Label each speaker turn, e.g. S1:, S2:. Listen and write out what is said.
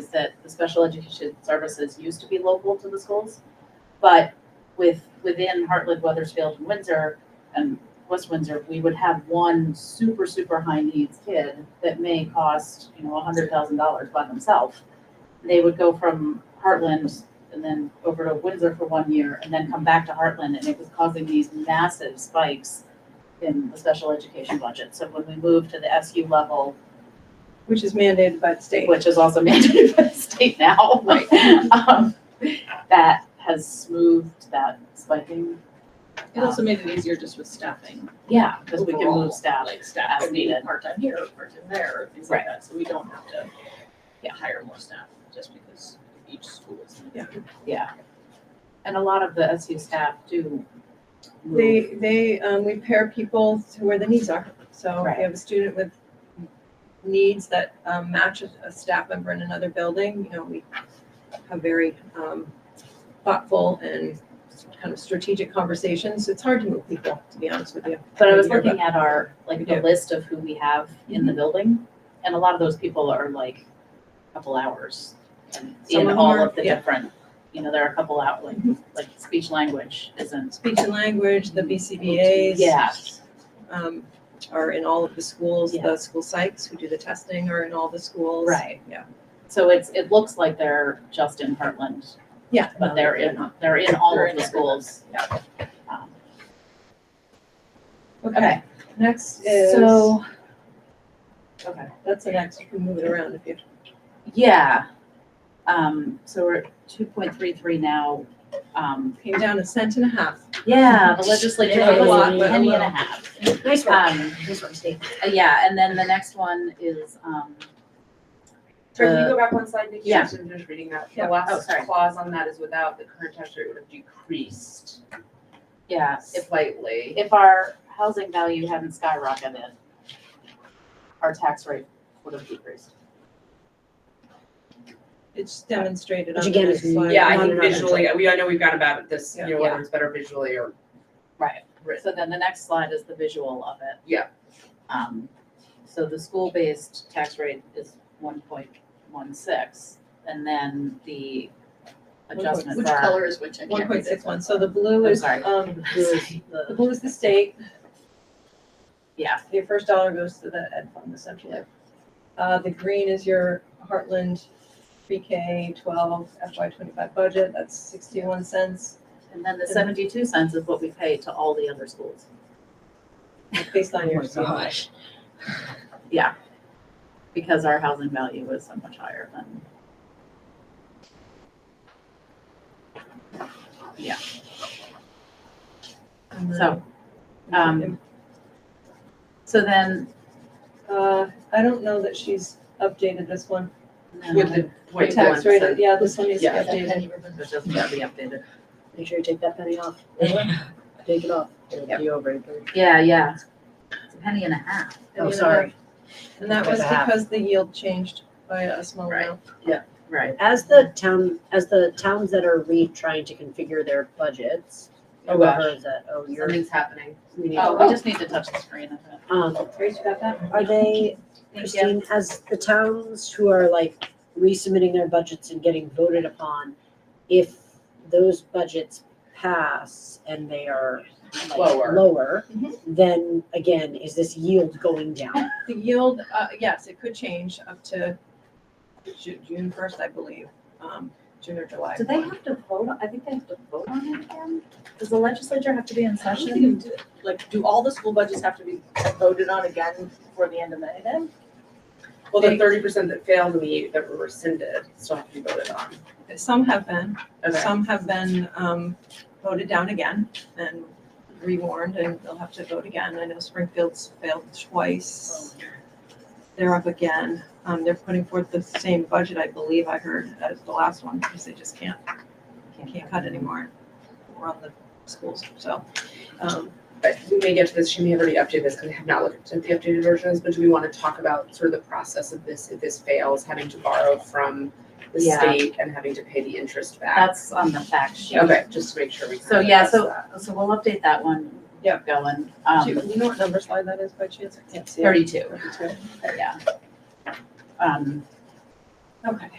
S1: that the special education services used to be local to the schools. But with, within Hartland, Weathersfield, and Windsor, and West Windsor, we would have one super, super high needs kid that may cost, you know, a hundred thousand dollars by themselves. They would go from Heartland and then over to Windsor for one year and then come back to Heartland and it was causing these massive spikes in the special education budget. So when we moved to the SU level,
S2: which is mandated by the state.
S1: which is also mandated by the state now, right? Um, That has smoothed that spiking.
S3: It also made it easier just with staffing,
S1: Yeah, because we can
S3: Overall,
S1: move staff.
S3: like staff
S1: As
S3: could be
S1: needed.
S3: part-time here, part-time there, or things like that, so we don't have to yeah, hire more staff just because each school is.
S2: Yeah.
S1: Yeah. And a lot of the SU staff do move.
S2: They, they, um, we pair people to where the needs are. So if
S1: Right.
S2: you have a student with needs that, um, matches a staff member in another building, you know, we have very, um, thoughtful and kind of strategic conversations. It's hard to move people, to be honest with you.
S1: But I was
S2: Yeah, but-
S1: looking at our, like, the
S2: Yeah.
S1: list of who we have in
S2: Mhm.
S1: the building, and a lot of those people are like a couple hours. and In
S2: Some of them
S1: all
S2: are,
S1: of the
S2: yeah. Mhm.
S1: different, you know, there are a couple out, like, like speech language isn't.
S2: Speech and language, the BCBA's.
S1: Yes.
S2: Um, are in all of the schools,
S1: Yeah.
S2: the school psychs who do the testing are in all the schools.
S1: Right.
S2: Yeah.
S1: So it's, it looks like they're just in Heartland,
S2: Yeah.
S1: but
S2: no,
S1: they're in, they're in all
S3: They're
S1: of
S3: in
S1: the
S3: every-
S1: schools.
S3: yeah.
S1: Um,
S2: Okay, next is.
S1: So. Okay.
S2: That's an X, you can move it around if you.
S1: Yeah. Um, so we're two point three three now. Um,
S2: Came down a cent and a half.
S1: yeah, the legislature
S2: Yeah, a
S1: was
S2: lot,
S1: a
S2: but a
S1: penny and a
S2: little.
S1: half.
S4: Nice
S1: Um,
S4: Uh, Nice work, Steve.
S1: uh, yeah, and then the next one is, um,
S5: Sorry, can
S1: the-
S3: Uh,
S5: you go back one slide, Nikki?
S1: Yeah.
S5: I'm just reading that.
S2: Yeah.
S5: The
S1: Oh,
S5: last
S1: sorry.
S5: clause on that is without the current tax rate would have decreased
S1: yeah, if,
S5: slightly.
S1: if our housing value hadn't skyrocketed, our tax rate would have decreased.
S2: It's demonstrated on
S4: Which
S2: the
S4: again
S2: next
S4: is
S3: Uh,
S2: slide.
S5: Yeah,
S4: Not
S5: I think
S4: another
S5: visually, we, I know we've gone about this, you
S2: Yeah.
S5: know, whether it's better visually or
S1: Right.
S5: Right.
S1: So then the next slide is the visual of it.
S5: Yeah.
S1: Um, so the school-based tax rate is one point one six, and then the adjustment
S3: Which
S1: for our-
S3: color is which? I
S2: One
S3: can't read
S2: point
S3: this
S2: six one, so the blue
S1: I'm
S2: is,
S1: sorry.
S2: um, the
S1: The-
S2: blue is the state,
S1: Yeah,
S2: your first dollar goes to the ed fund essentially. Uh, the green is your Heartland pre-K twelve FY twenty-five budget, that's sixty-one cents,
S1: and then the seventy-two cents is what we pay to all the other schools.
S2: based on your.
S4: gosh.
S1: because our housing value was so much higher than.
S2: And
S1: So,
S2: then-
S1: um, so then,
S2: Uh, I don't know that she's updated this one,
S1: no,
S5: with
S2: the
S5: the point one
S2: tax rate,
S5: cent.
S2: yeah, this one needs to be
S5: Yeah.
S4: That
S2: updated.
S4: penny ribbon.
S1: it doesn't have to be updated.
S4: Make sure you take that penny off.
S1: Yeah.
S4: Take it off. It'll be over.
S1: Yeah, yeah. It's a penny and a half. Oh,
S2: And then
S1: sorry,
S2: And that was
S4: Because I have-
S2: because the yield changed by a small amount.
S1: right.
S4: As the town, as the towns that are re-trying to configure their budgets.
S5: Oh, gosh.
S4: whoever is that, oh, you're,
S5: Something's happening.
S4: we need,
S1: Oh,
S4: um,
S1: we just need to touch the screen.
S2: Grace, you got that?
S4: are they, Christine, as the towns who are like resubmitting their budgets and getting voted upon, if those budgets pass and they are like
S5: Lower. Mm-hmm.
S4: lower,
S2: Mhm.
S4: then again, is this yield going down?
S2: The yield, uh, yes, it could change up to Ju- June first, I believe, um, June or July.
S1: Do they have to vote? I think they have to vote on it again? Does the legislature have to be in
S6: I don't think it did. Like, do all the school budgets have to be voted on again before the end of May then?
S5: Well, the thirty percent that failed and the that were rescinded still have to be voted on.
S2: Some have been,
S5: Okay.
S2: some have been, um, voted down again and rewarned and they'll have to vote again. I know Springfield's failed twice. They're up again. Um, they're putting forth the same budget, I believe I heard, as the last one, because they just can't, can't cut anymore. We're on the schools, so, um,
S5: But we may get to this, she may have already updated this because I have not looked at the updated versions, but do we want to talk about sort of the process of this, if this fails, having to borrow from the
S1: Yeah.
S5: state and having to pay the interest back?
S1: That's on the fact sheet.
S5: Okay, just to make sure we.
S1: Um, So, yeah, so, so we'll update that one.
S2: Yeah.
S1: Going,
S2: Do
S1: um,
S2: you do you know what number slide that is by chance? I can't see it.
S1: thirty-two, yeah. Um,
S2: Okay.